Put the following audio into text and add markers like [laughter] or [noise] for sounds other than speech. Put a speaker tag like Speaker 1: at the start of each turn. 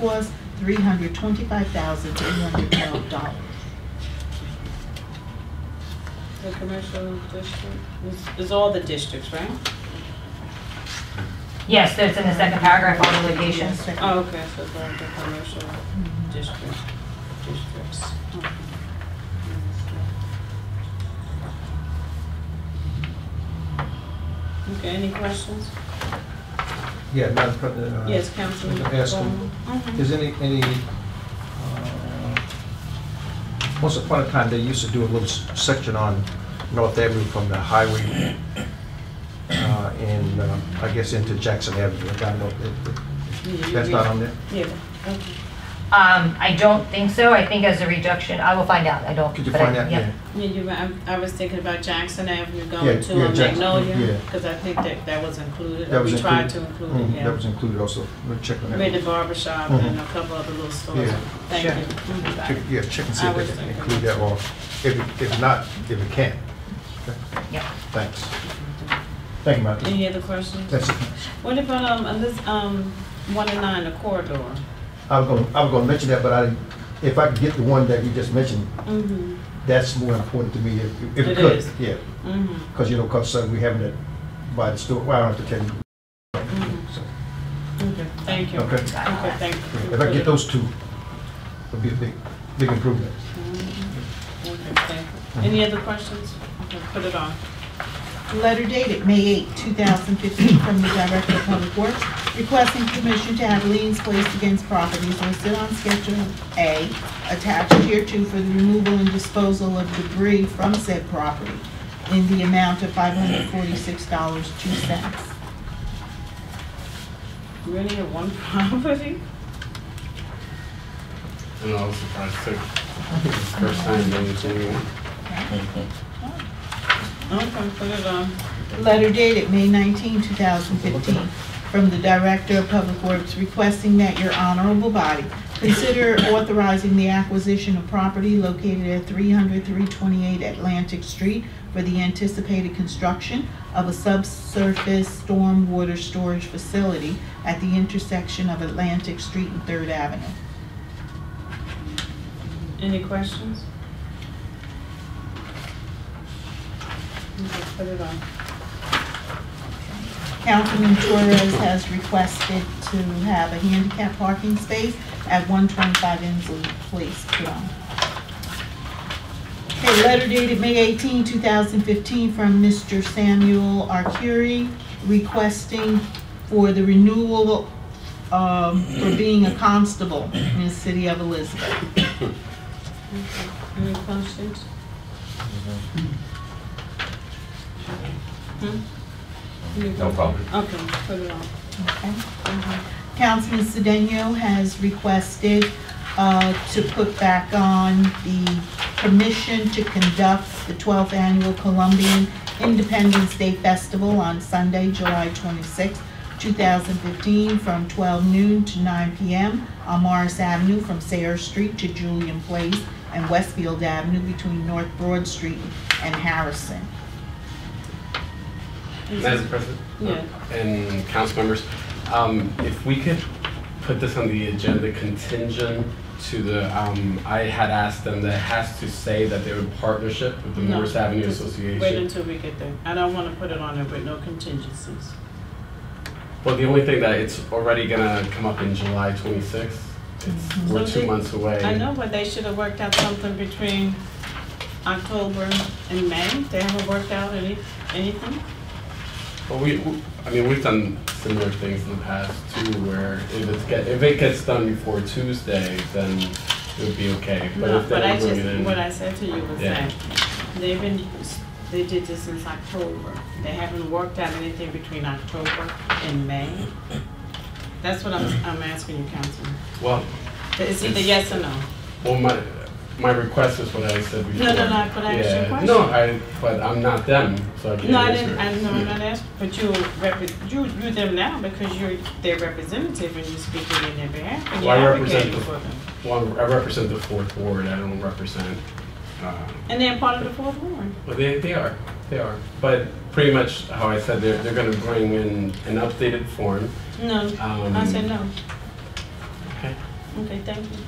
Speaker 1: was three hundred twenty-five thousand three hundred twelve dollars.
Speaker 2: The commercial district, is, is all the districts, right?
Speaker 3: Yes, that's in the second paragraph on the litigation.
Speaker 1: Yes, second.
Speaker 2: Oh, okay, so it's all the commercial
Speaker 1: Mhm.
Speaker 2: district, districts. Okay. Okay, any questions?
Speaker 4: Yeah, Madam President. uh,
Speaker 2: Yes, Councilman
Speaker 4: I'd ask him,
Speaker 2: Bowman? Mhm.
Speaker 4: Is any, any, uh, once upon a time, they used to do a little s- section on North Avenue from the highway uh, and, uh, I guess, into Jackson Avenue. I don't know if- if-
Speaker 2: Yeah, you
Speaker 4: That's
Speaker 2: read-
Speaker 4: not on there?
Speaker 2: Yeah, okay.
Speaker 3: Um, I don't think so. I think as a reduction, I will find out. I don't.
Speaker 4: Could you
Speaker 3: but I-
Speaker 4: find out?
Speaker 3: yeah.
Speaker 2: Yeah, you, I, I was thinking about Jackson Avenue
Speaker 4: Yeah,
Speaker 2: going to
Speaker 4: yeah,
Speaker 2: uh,
Speaker 4: Jackson, yeah.
Speaker 2: Magnolia, because I think that, that was included,
Speaker 4: That
Speaker 2: or
Speaker 4: was
Speaker 2: we tried to include
Speaker 4: included.
Speaker 2: it,
Speaker 4: Mhm,
Speaker 2: yeah.
Speaker 4: That was included also. We'll check on
Speaker 2: Made the
Speaker 4: that.
Speaker 2: barber shop and a couple other little stores.
Speaker 4: Yeah.
Speaker 2: Thank
Speaker 4: Sure.
Speaker 2: you. Mhm.
Speaker 4: Check- Yeah, check and see
Speaker 2: I
Speaker 4: if they
Speaker 2: was
Speaker 4: can
Speaker 2: thinking
Speaker 4: include
Speaker 2: that.
Speaker 4: that or if, it- if not, if it can. Okay,
Speaker 3: Yeah.
Speaker 4: Thanks. Thank you, Madam. President.
Speaker 2: Any other questions?
Speaker 4: That's it.
Speaker 2: What about, um, uh, this, um, one and nine, the corridor?
Speaker 4: I was gonna, I was gonna mention that, but I, if I could get the one that you just mentioned,
Speaker 2: Mm-hmm,
Speaker 4: that's more important to me if, if
Speaker 2: It
Speaker 4: it could.
Speaker 2: is.
Speaker 4: Yeah,
Speaker 2: mm-hmm.
Speaker 4: because you know, cause suddenly we having it by the store, well, I don't have to tell you.
Speaker 2: Mm-hmm.
Speaker 4: So,
Speaker 2: Okay, thank you.
Speaker 4: Okay.
Speaker 2: Okay, thank you.
Speaker 4: If I get those two, it'd be a big, big improvement.
Speaker 2: Mhm. Okay, thank you. Any other questions? Okay, put it on.
Speaker 1: Letter dated May 8, 2015, from the Director of Public Works requesting permission to have liens placed against properties listed on Schedule A attached hereto for the removal and disposal of debris from said property in the amount of $546.02.
Speaker 2: We only have one [laughs] property?
Speaker 5: And I was surprised too. First time doing anything.
Speaker 2: Okay, put it on.
Speaker 1: Letter dated May 19, 2015, from the Director of Public Works requesting that your honorable body consider authorizing the acquisition of property located at 300-328 Atlantic Street for the anticipated construction of a subsurface stormwater storage facility at the intersection of Atlantic Street and Third Avenue.
Speaker 2: Any questions? Okay, put it on.
Speaker 1: Councilman Torres has requested to have a handicap parking space at 125 Inslee Place, Plum. Okay, letter dated May 18, 2015, from Mr. Samuel Arcuri requesting for the renewal um, for being a constable in the city of Elizabeth.
Speaker 2: Any questions? Hmm? Any
Speaker 6: No problem.
Speaker 2: questions? Okay, put it on. Mm-hmm.
Speaker 1: Okay. Councilman Sedano has requested uh, to put back on the permission to conduct the 12th Annual Colombian Independence Day Festival on Sunday, July 26, 2015, from 12 noon to 9 p.m. on Morris Avenue from Sayre Street to Julian Place and Westfield Avenue between North Broad Street and Harrison.
Speaker 5: Madam President?
Speaker 2: Yeah.
Speaker 5: And council members, um, if we could put this on the agenda contingent to the, um, I had asked them that it has to say that they're in partnership with the
Speaker 2: No,
Speaker 5: Morris Avenue
Speaker 2: just Wait
Speaker 5: Association.
Speaker 2: until we get there. I don't want to put it on there with no contingencies.
Speaker 5: Well, the only thing that it's already gonna come up in July twenty-sixth. It's,
Speaker 2: So
Speaker 5: we're two
Speaker 2: they-
Speaker 5: months away.
Speaker 2: I know, but they should have worked out something between October and May. They haven't worked out any, anything?
Speaker 5: Well, we, we- I mean, we've done similar things in the past too, where if it's get, if it gets done before Tuesday, then it would be okay.
Speaker 2: No,
Speaker 5: if they
Speaker 2: but I
Speaker 5: bring it
Speaker 2: just,
Speaker 5: in-
Speaker 2: what I said to you was
Speaker 5: Yeah.
Speaker 2: that they've been, they did this since October. They haven't worked out anything between October and May. That's what I'm, I'm asking you, Councilman.
Speaker 5: Well,
Speaker 2: It's either
Speaker 5: It's-
Speaker 2: yes or no.
Speaker 5: well, my, my request is what I said before.
Speaker 2: No, no, no, but I asked you a
Speaker 5: Yeah.
Speaker 2: question.
Speaker 5: No, I, but I'm not them, so I can't
Speaker 2: No, I
Speaker 5: answer.
Speaker 2: didn't, I know, I'm not asking, but you repre, you, you them now because you're their representative and you're speaking in their behalf and you're
Speaker 5: Well, I represent
Speaker 2: advocating
Speaker 5: the-
Speaker 2: for them.
Speaker 5: Well, I represent the fourth ward, I don't represent, uh,
Speaker 2: And they're part of the fourth ward.
Speaker 5: Well, they, they are, they are. But pretty much how I said, they're, they're gonna bring in an updated form.
Speaker 2: No,
Speaker 5: Um,
Speaker 2: I said no.
Speaker 5: Okay.
Speaker 2: Okay, thank you.